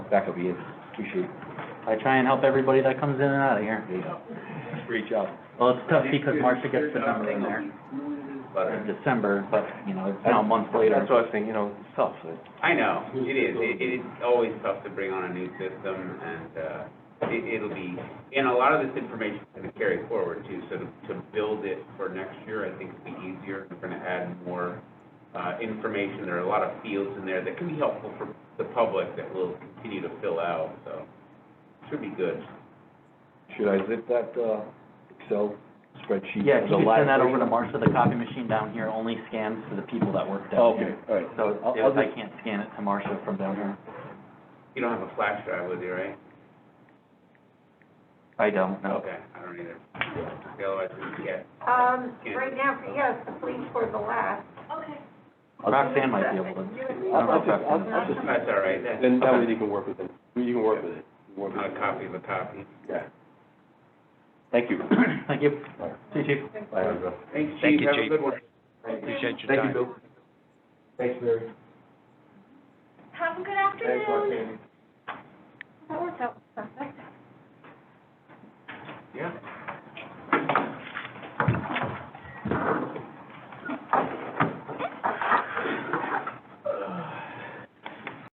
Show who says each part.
Speaker 1: that could be it, appreciate
Speaker 2: I try and help everybody that comes in and out of here.
Speaker 1: it, great job.
Speaker 2: Well, it's tough because Marcia gets the number in there in December, but, you know, it's now a month later.
Speaker 1: That's what I was thinking, you know, it's tough, it-
Speaker 3: I know, it is, it, it is always tough to bring on a new system, and, uh, it, it'll be, and a lot of this information is gonna carry forward too, so to, to build it for next year, I think it'll be easier, we're gonna add more, uh, information, there are a lot of fields in there that can be helpful for the public that will continue to fill out, so, should be good.
Speaker 1: should I zip that, uh, Excel spreadsheet?
Speaker 2: Yeah, if you
Speaker 1: the
Speaker 2: could
Speaker 1: last
Speaker 2: send that over to
Speaker 1: version?
Speaker 2: Marcia, the copy machine down here only scans for the people that work down
Speaker 1: Oh, Okay,
Speaker 2: here.
Speaker 1: all right,
Speaker 2: So
Speaker 1: I'll- I'll
Speaker 2: if I
Speaker 1: just-
Speaker 2: can't scan it to Marcia from down here,
Speaker 3: You don't have a flash drive with you, right?
Speaker 2: I don't know.
Speaker 3: Okay, I don't either, otherwise we get,
Speaker 4: Um, right now, yes, the police were the last.
Speaker 2: Roxanne might be able to.
Speaker 1: I'll, I'll just, I'll- I'll just,
Speaker 3: that's all right, that's
Speaker 5: Then that way you can work with it, you can work with it. You can work with
Speaker 3: not
Speaker 5: it.
Speaker 3: a copy of a copy.
Speaker 5: Yeah. Thank you.
Speaker 2: Thank you. See you, chief.
Speaker 5: Bye, Andrew.
Speaker 3: Thanks,
Speaker 6: Thank
Speaker 3: chief,
Speaker 6: you,
Speaker 3: have a
Speaker 6: Chief.
Speaker 3: good one.
Speaker 6: Appreciate your
Speaker 5: Thank you,
Speaker 6: time.
Speaker 5: Bill.
Speaker 1: thanks, Mary.
Speaker 7: Have a good afternoon.
Speaker 1: Thanks,